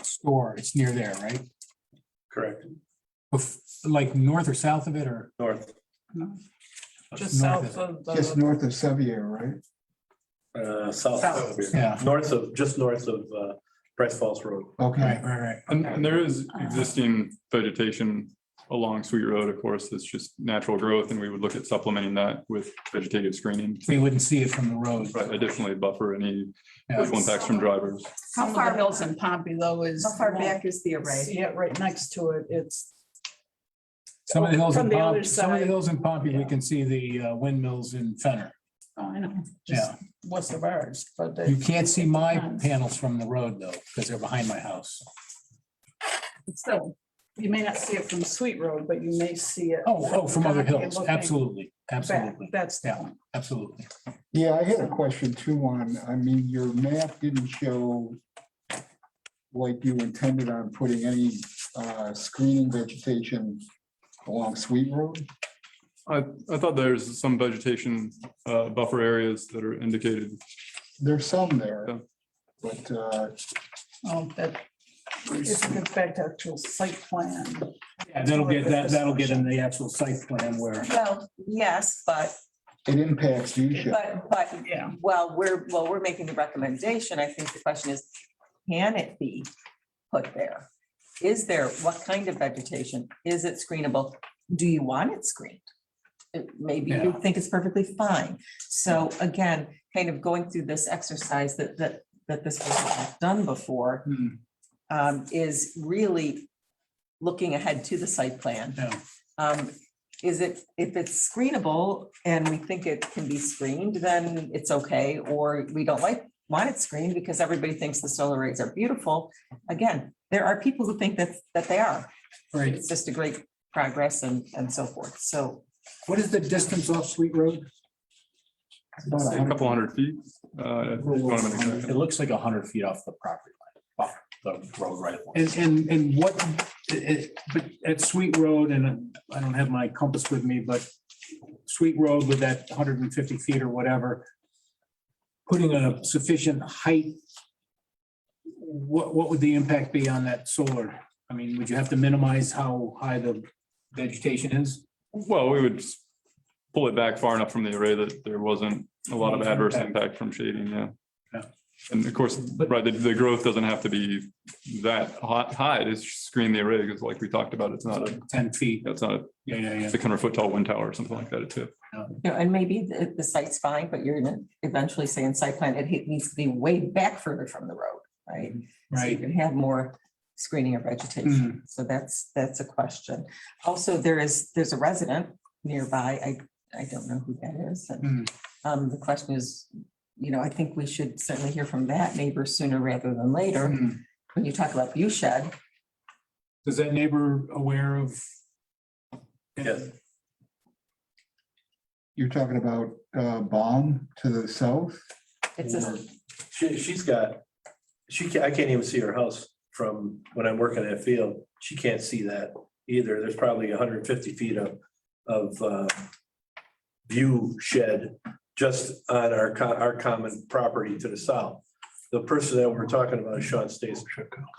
store, it's near there, right? Correct, Bef- Like north or south of it or? north, Just north south of it? of Just the, north of Sevier, right? uh, south of South. here, Yeah, north of, just north of, uh, Price Falls Road. Okay, right, right, right. And, and there is existing vegetation along Sweet Road, of course, that's just natural growth, and we would look at supplementing that with vegetative screening. We wouldn't see it from the road. Right, additionally buffer any Yeah. visual impacts from drivers. some of the far- hills in Pompey though is. How far back is the array? See it right next to it. It's, Some of the hills in From the other Pompey, some of the side. hills in Pompey, we Yeah. can see the uh, windmills in Fenner. oh, I know, just west of ours, but. You can't see my Nice. panels from the road though, because they're behind my house. So you may not see it from Sweet Road, but you may see it. Oh, oh, from other You're hills, looking absolutely, back. absolutely, That's the Yeah. one. absolutely. yeah, I had a question too on, I mean, your map didn't show like you intended on putting any uh, screening vegetation along Sweet Road? I, I thought there's some vegetation, uh, buffer areas that are indicated. There's some there, Yeah. but uh, Oh, that, if it gets back to actual site plan. Yeah, that'll get, that, that'll get in the actual site plan where. Well, yes, but, it impacts you. Shep. but, but, Yeah. well, we're, well, we're making the recommendation. I think the question is, can it be put there? Is there, what kind of vegetation? Is it screenable? Do you want it screened? It- Maybe you Yeah. think it's perfectly fine. So again, kind of going through this exercise that, that, that this was done before Hmm, um, is really looking ahead to the site plan. Yeah. Um, is it, if it's screenable and we think it can be screened, then it's okay, or we don't like, want it screened because everybody thinks the solar arrays are beautiful. Again, there are people who think that, that they are. Right, It's just a great progress and, and so forth. So what is the distance off Sweet Road? About A couple hundred feet. uh, if you want them in a- It looks like a hundred feet off the property line, off the road right away. And, and, and what, it- it- but at Sweet Road, and I don't have my compass with me, but Sweet Road with that hundred and fifty feet or whatever, putting a sufficient height, what, what would the impact be on that solar? I mean, would you have to minimize how high the vegetation is? Well, we would s- pull it back far enough from the array that there wasn't a lot of adverse impact from shading, yeah. Yeah. And of course, right, the, the growth doesn't have to be that hot, high to screen the array, because like we talked about, it's not a, Ten feet, it's not yeah, yeah, a yeah. six hundred foot tall wind tower or something like that, it's a you know, and maybe the, the site's fine, but you're gonna eventually say in site plan, it needs to be way back further from the road, right? So you Right, can have more screening of vegetation. So that's, that's a question. Also, there is, there's a resident nearby. I, I don't know who that is. And um, the question is, you know, I think we should certainly hear from that neighbor sooner rather than later. Hmm. When you talk about view shed, Is that neighbor aware of? Yes. You're talking about uh, Baum to the south? it's a, or- She, she's got, she, ca- I can't even see her house from when I'm working that field. She can't see that either. There's probably hundred and fifty feet of, of, uh, view shed just on our, co- our common property to the south. The person that we're talking about is Sean Stacy.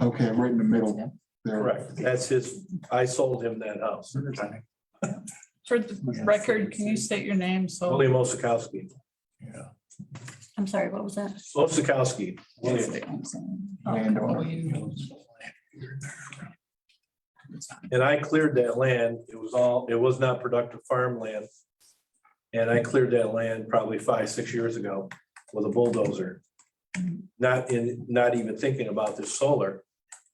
Okay, right in the middle there. Correct. That's his, I sold him that house. For the record, can you state your name? So. William Osikowski, I'm sorry, what was that? Osikowski, William. Landowner. And I cleared that land. It was all, it was not productive farmland. And I cleared that land probably five, six years ago with a bulldozer. Not in, not even thinking about this solar,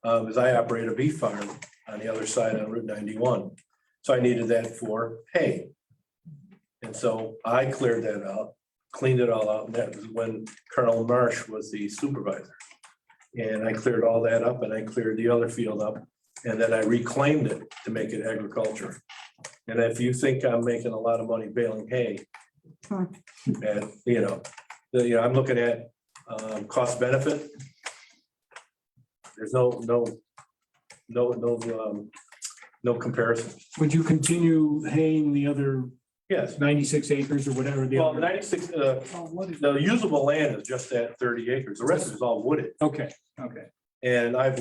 um, as I operate a bee farm on the other side of Route ninety-one. So I needed that for hay. And so I cleared that out, cleaned it all out, and that was when Colonel Marsh was the supervisor. And I cleared all that up and I cleared the other field up and then I reclaimed it to make it agriculture. And if you think I'm making a lot of money baling hay, Hmm. and, you know, the, you know, I'm looking at, um, cost benefit. There's no, no, no, no, um, no comparison. Would you continue haying the other Yes, ninety-six acres or whatever? the well, other- ninety-six, uh, Oh, what is- the usable land is just that thirty acres. The rest is all wooded. Okay, okay. And I've